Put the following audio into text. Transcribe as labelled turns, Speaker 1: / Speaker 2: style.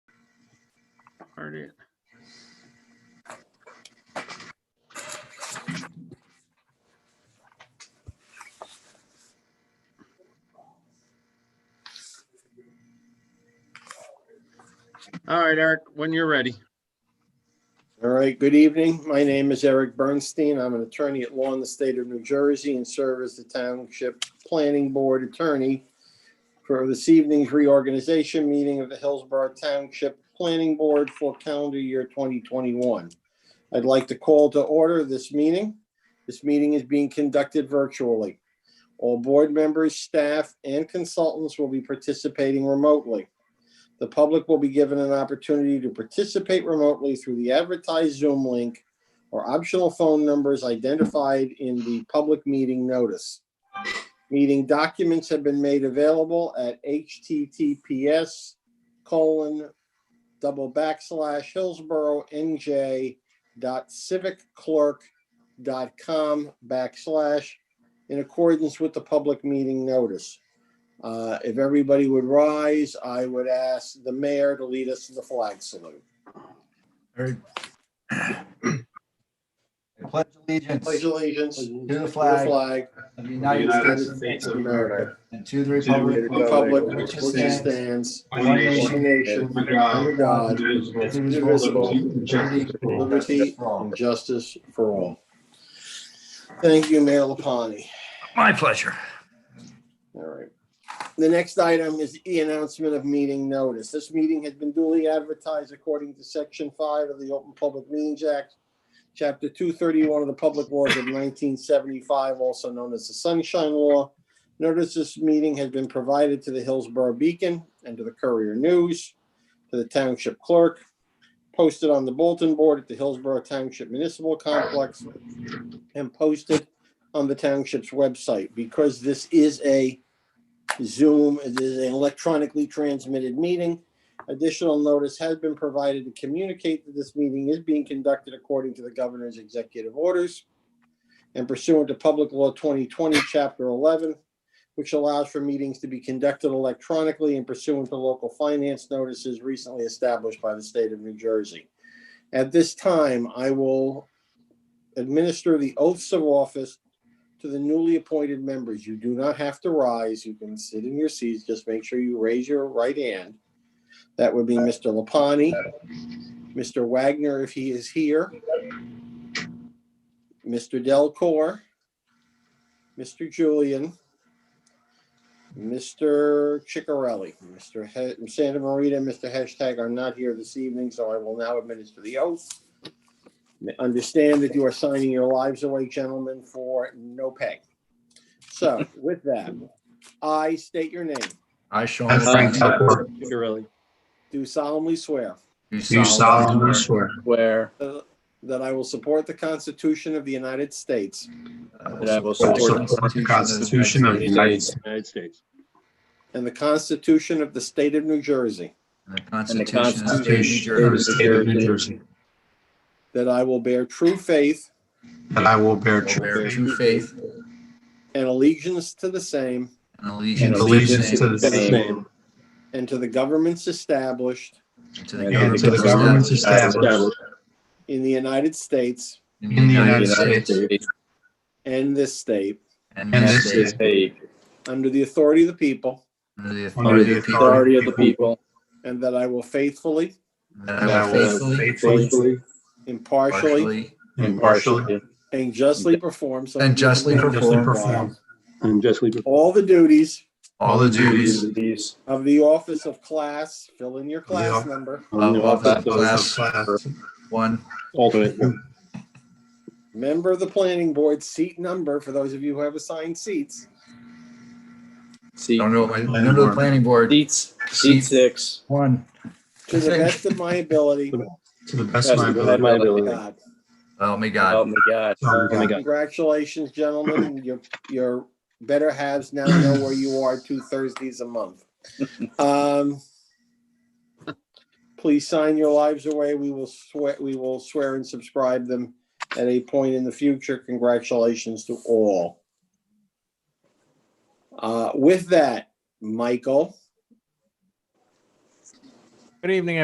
Speaker 1: part it. All right, Eric, when you're ready.
Speaker 2: All right, good evening. My name is Eric Bernstein. I'm an attorney at law in the state of New Jersey and serve as the Township Planning Board Attorney for this evening's reorganization meeting of the Hillsborough Township Planning Board for calendar year 2021. I'd like to call to order this meeting. This meeting is being conducted virtually. All board members, staff, and consultants will be participating remotely. The public will be given an opportunity to participate remotely through the advertised Zoom link or optional phone numbers identified in the public meeting notice. Meeting documents have been made available at https colon double backslash Hillsborough NJ dot civic clerk dot com backslash in accordance with the public meeting notice. Uh, If everybody would rise, I would ask the mayor to lead us to the flag salute.
Speaker 3: Very. I Pledge
Speaker 2: Pledge
Speaker 3: allegiance
Speaker 2: allegiance to
Speaker 3: to the
Speaker 2: the
Speaker 3: flag
Speaker 2: flag
Speaker 3: of the United States
Speaker 2: of America,
Speaker 3: and to the
Speaker 2: to the
Speaker 3: republic
Speaker 2: republic
Speaker 3: which
Speaker 2: which it
Speaker 3: stands
Speaker 2: stands,
Speaker 3: one
Speaker 2: one
Speaker 3: nation
Speaker 2: nation, under God, indivisible, with liberty
Speaker 3: justice for all.
Speaker 2: and justice for all. Thank you, Mayor Lapani.
Speaker 4: My pleasure.
Speaker 2: All right. The next item is the announcement of meeting notice. This meeting has been duly advertised according to section five of the Open Public Meetings Act, chapter two thirty-one of the Public Laws of nineteen seventy-five, also known as the Sunshine Law. Notice this meeting has been provided to the Hillsborough Beacon and to the Courier News, to the Township Clerk, posted on the bulletin board at the Hillsborough Township Municipal Complex, and posted on the township's website. Because this is a Zoom, it is an electronically transmitted meeting. Additional notice has been provided to communicate that this meeting is being conducted according to the governor's executive orders and pursuant to Public Law 2020, Chapter 11, which allows for meetings to be conducted electronically and pursuant to local finance notices recently established by the state of New Jersey. At this time, I will administer the oaths of office to the newly appointed members. You do not have to rise. You can sit in your seats. Just make sure you raise your right hand. That would be Mr. Lapani, Mr. Wagner, if he is here, Mr. Delcor, Mr. Julian, Mr. Chicarelli, Mr. He- Santa Marita, and Mr. Hashtag are not here this evening, so I will now administer the oath. Understand that you are signing your lives away, gentlemen, for no pay. So with that, I state your name,
Speaker 3: I, Sean
Speaker 4: I, Frank
Speaker 3: Lapine,
Speaker 4: Tucker,
Speaker 2: do solemnly swear
Speaker 4: do solemnly swear
Speaker 5: Where
Speaker 2: that I will support the Constitution of the United States
Speaker 5: that I will
Speaker 4: that I
Speaker 5: support
Speaker 4: will support the Constitution of the United States
Speaker 1: United States.
Speaker 2: and the Constitution of the State of New Jersey,
Speaker 3: and the
Speaker 5: the
Speaker 3: Constitution of the State of New
Speaker 5: Constitution
Speaker 4: Constitution of the
Speaker 3: Jersey.
Speaker 4: State of New Jersey,
Speaker 2: that I will bear true faith
Speaker 4: that I will bear
Speaker 3: will
Speaker 4: true
Speaker 3: Bear
Speaker 4: faith
Speaker 3: true faith
Speaker 2: and allegiance to the same
Speaker 3: and
Speaker 4: and
Speaker 3: allegiance to the
Speaker 4: allegiance to
Speaker 3: same
Speaker 4: the same
Speaker 2: and to the governments established
Speaker 3: and to the
Speaker 4: and to the governments
Speaker 3: government
Speaker 4: established
Speaker 2: in the United States
Speaker 3: in the United States
Speaker 2: and this state
Speaker 3: and this state
Speaker 5: state
Speaker 2: under the authority of the people,
Speaker 3: under the authority of the people.
Speaker 5: authority of the people,
Speaker 2: and that I will faithfully,
Speaker 3: That
Speaker 4: that I will
Speaker 3: faithfully,
Speaker 4: faithfully,
Speaker 2: impartially,
Speaker 3: partially,
Speaker 4: impartially,
Speaker 2: And justly perform. so
Speaker 3: and justly
Speaker 2: help me
Speaker 4: justly
Speaker 3: perform
Speaker 4: perform
Speaker 1: And justly.
Speaker 2: God. All the duties
Speaker 3: all the duties
Speaker 5: duties
Speaker 2: of the office of class, fill in your class
Speaker 4: Yeah.
Speaker 2: number,
Speaker 3: of office
Speaker 4: uh,
Speaker 3: of class
Speaker 4: class
Speaker 3: one,
Speaker 1: Alternate.
Speaker 2: member of the planning board, seat number, for those of you who have assigned seats,
Speaker 5: seat
Speaker 3: don't know, what my- don't know the planning board,
Speaker 5: seats seat six
Speaker 3: one.
Speaker 2: to the best of my ability,
Speaker 4: to the best of my ability.
Speaker 2: God.
Speaker 3: Oh my God.
Speaker 5: help me God
Speaker 2: Congratulations, gentlemen. Your, your better halves now know where you are two Thursdays a month. Um, Please sign your lives away. We will swear, we will swear and subscribe them at a point in the future. Congratulations to all. Uh, With that, Michael.
Speaker 6: Good evening,